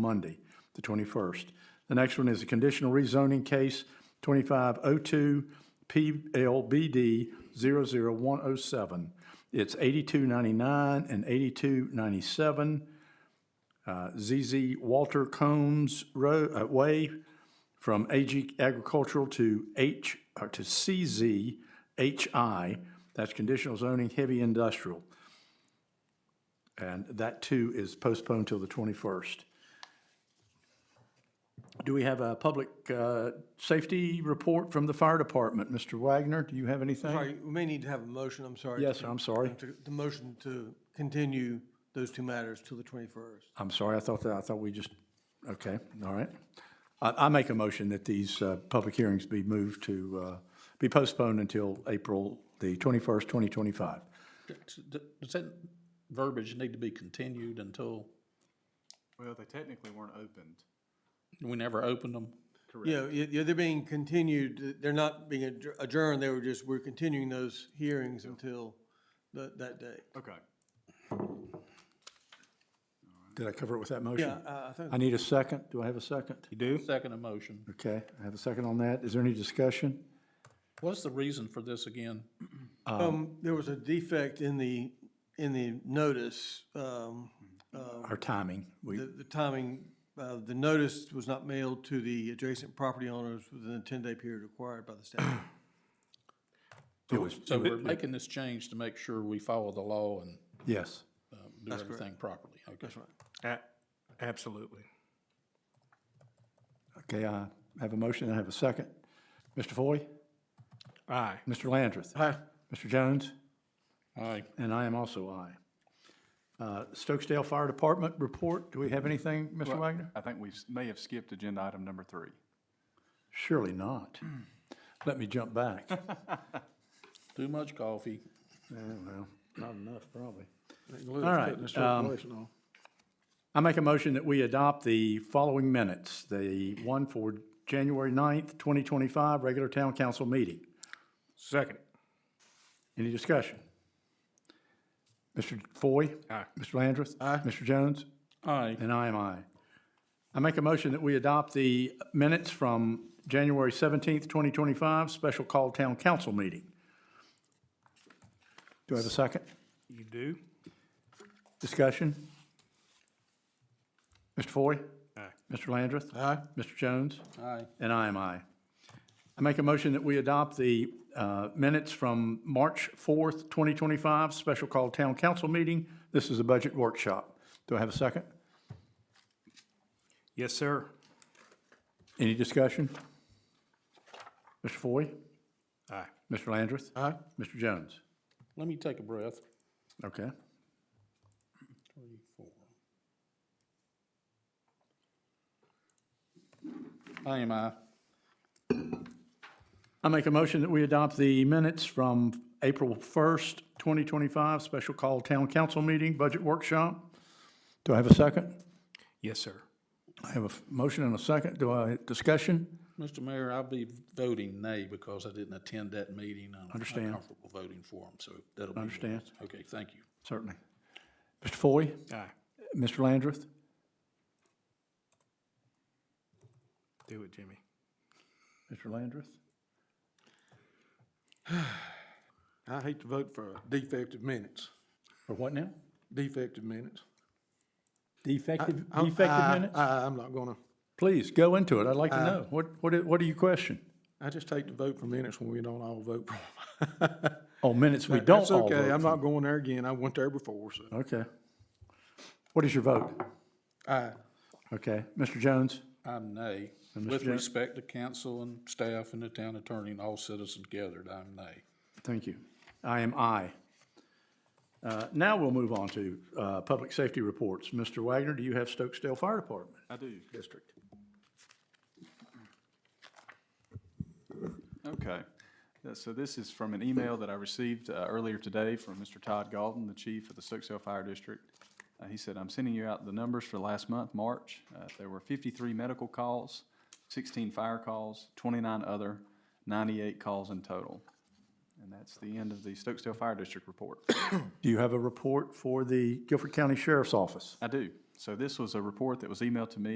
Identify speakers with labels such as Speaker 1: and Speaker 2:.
Speaker 1: Monday, the 21st. The next one is a conditional rezoning case 2502 PLBD 00107. It's 8299 and 8297 uh, ZZ Walter Combs Road, uh, Way, from AG Agricultural to H, or to CZ HI. That's conditional zoning, heavy industrial. And that too is postponed till the 21st. Do we have a public uh, safety report from the fire department? Mr. Wagner, do you have anything?
Speaker 2: Sorry, we may need to have a motion, I'm sorry.
Speaker 1: Yes, sir, I'm sorry.
Speaker 2: to- The motion to continue those two matters till the 21st.
Speaker 1: I'm sorry, I thought that, I thought we just, okay, all right. I, I make a motion that these uh, public hearings be moved to, uh, be postponed until April the 21st, 2025.
Speaker 3: D- Does that verbiage need to be continued until,
Speaker 4: Well, they technically weren't opened.
Speaker 3: we never opened them?
Speaker 2: Yeah, y- yeah, they're being continued, they're not being adjour- adjourned, they were just, we're continuing those hearings until that, that day.
Speaker 4: Okay.
Speaker 1: Did I cover it with that motion?
Speaker 2: Yeah, Uh, I I think,
Speaker 1: I need a second. Do I have a second?
Speaker 3: You do? Second motion.
Speaker 1: Okay, I have a second on that. Is there any discussion?
Speaker 3: What's the reason for this again?
Speaker 2: um, there was a defect in the, in the notice, um,
Speaker 1: Our timing, we,
Speaker 2: the, the timing, uh, the notice was not mailed to the adjacent property owners within the 10-day period required by the statute.
Speaker 1: it was,
Speaker 3: So we're making this change to make sure we follow the law and
Speaker 1: yes.
Speaker 3: um, do everything properly. Okay.
Speaker 2: That's right.
Speaker 5: Absolutely.
Speaker 1: Okay, I have a motion, I have a second. Mr. Foy?
Speaker 5: Aye.
Speaker 1: Mr. Landrith? Aye. Mr. Jones?
Speaker 3: Aye.
Speaker 1: And I am also aye. Uh, Stokesdale Fire Department report, do we have anything, Mr. Wagner?
Speaker 4: I think we s- may have skipped agenda item number three.
Speaker 1: Surely not. Let me jump back.
Speaker 3: Too much coffee.
Speaker 1: Yeah, well, not enough, probably.
Speaker 5: All
Speaker 1: right, um, I make a motion that we adopt the following minutes, the one for January 9th, 2025, regular town council meeting.
Speaker 5: Second.
Speaker 1: Any discussion? Mr. Foy?
Speaker 5: Aye.
Speaker 1: Mr. Landrith? Aye. Mr. Jones?
Speaker 3: Aye.
Speaker 1: And I am aye. I make a motion that we adopt the minutes from January 17th, 2025, special call town council meeting. Do I have a second?
Speaker 5: You do?
Speaker 1: Discussion? Mr. Foy?
Speaker 5: Aye.
Speaker 1: Mr. Landrith?
Speaker 2: Aye.
Speaker 1: Mr. Jones?
Speaker 3: Aye.
Speaker 1: And I am aye. I make a motion that we adopt the uh, minutes from March 4th, 2025, special call town council meeting. This is a budget workshop. Do I have a second?
Speaker 5: Yes, sir.
Speaker 1: Any discussion? Mr. Foy?
Speaker 5: Aye.
Speaker 1: Mr. Landrith?
Speaker 2: Aye.
Speaker 1: Mr. Jones?
Speaker 3: Let me take a breath.
Speaker 1: Okay.
Speaker 3: Three, four. I am aye.
Speaker 1: I make a motion that we adopt the minutes from April 1st, 2025, special call town council meeting, budget workshop. Do I have a second?
Speaker 5: Yes, sir.
Speaker 1: I have a f- motion and a second. Do I, discussion?
Speaker 3: Mr. Mayor, I'll be voting nay because I didn't attend that meeting. I'm
Speaker 1: Understand.
Speaker 3: uncomfortable voting for them, so that'll be.
Speaker 1: Understand.
Speaker 3: Okay, thank you.
Speaker 1: Certainly. Mr. Foy?
Speaker 5: Aye.
Speaker 1: Mr. Landrith?
Speaker 5: Do it, Jimmy.
Speaker 1: Mr. Landrith?
Speaker 6: I hate to vote for defective minutes,
Speaker 1: For what now?
Speaker 6: defective minutes.
Speaker 1: Defective,
Speaker 6: I'm-
Speaker 1: defective
Speaker 6: I-
Speaker 1: minutes?
Speaker 6: I, I'm not gonna,
Speaker 1: Please, go into it. I'd like to
Speaker 6: uh,
Speaker 1: know. What, what, do- what do you question?
Speaker 6: I just hate to vote for minutes when we don't all vote for 'em.
Speaker 1: Oh, minutes we don't
Speaker 6: That's
Speaker 1: all
Speaker 6: okay,
Speaker 1: vote
Speaker 6: I'm
Speaker 1: for.
Speaker 6: not going there again, I went there before, so.
Speaker 1: Okay. What is your vote?
Speaker 6: Aye,
Speaker 1: Okay. Mr. Jones?
Speaker 3: I'm nay. With respect to council and staff and the town attorney and all citizens gathered, I'm nay.
Speaker 1: Thank you. I am aye. Uh, Now we'll move on to uh, public safety reports. Mr. Wagner, do you have Stokesdale Fire Department
Speaker 4: I do.
Speaker 1: District?
Speaker 4: Okay. Uh, So this is from an email that I received uh, earlier today from Mr. Todd Galton, the chief of the Stokesdale Fire District. Uh, He said, "I'm sending you out the numbers for last month, March. Uh, There were 53 medical calls, 16 fire calls, 29 other, 98 calls in total." And that's the end of the Stokesdale Fire District report.
Speaker 1: Do you have a report for the Guilford County Sheriff's Office?
Speaker 4: I do. So this was a report that was emailed to me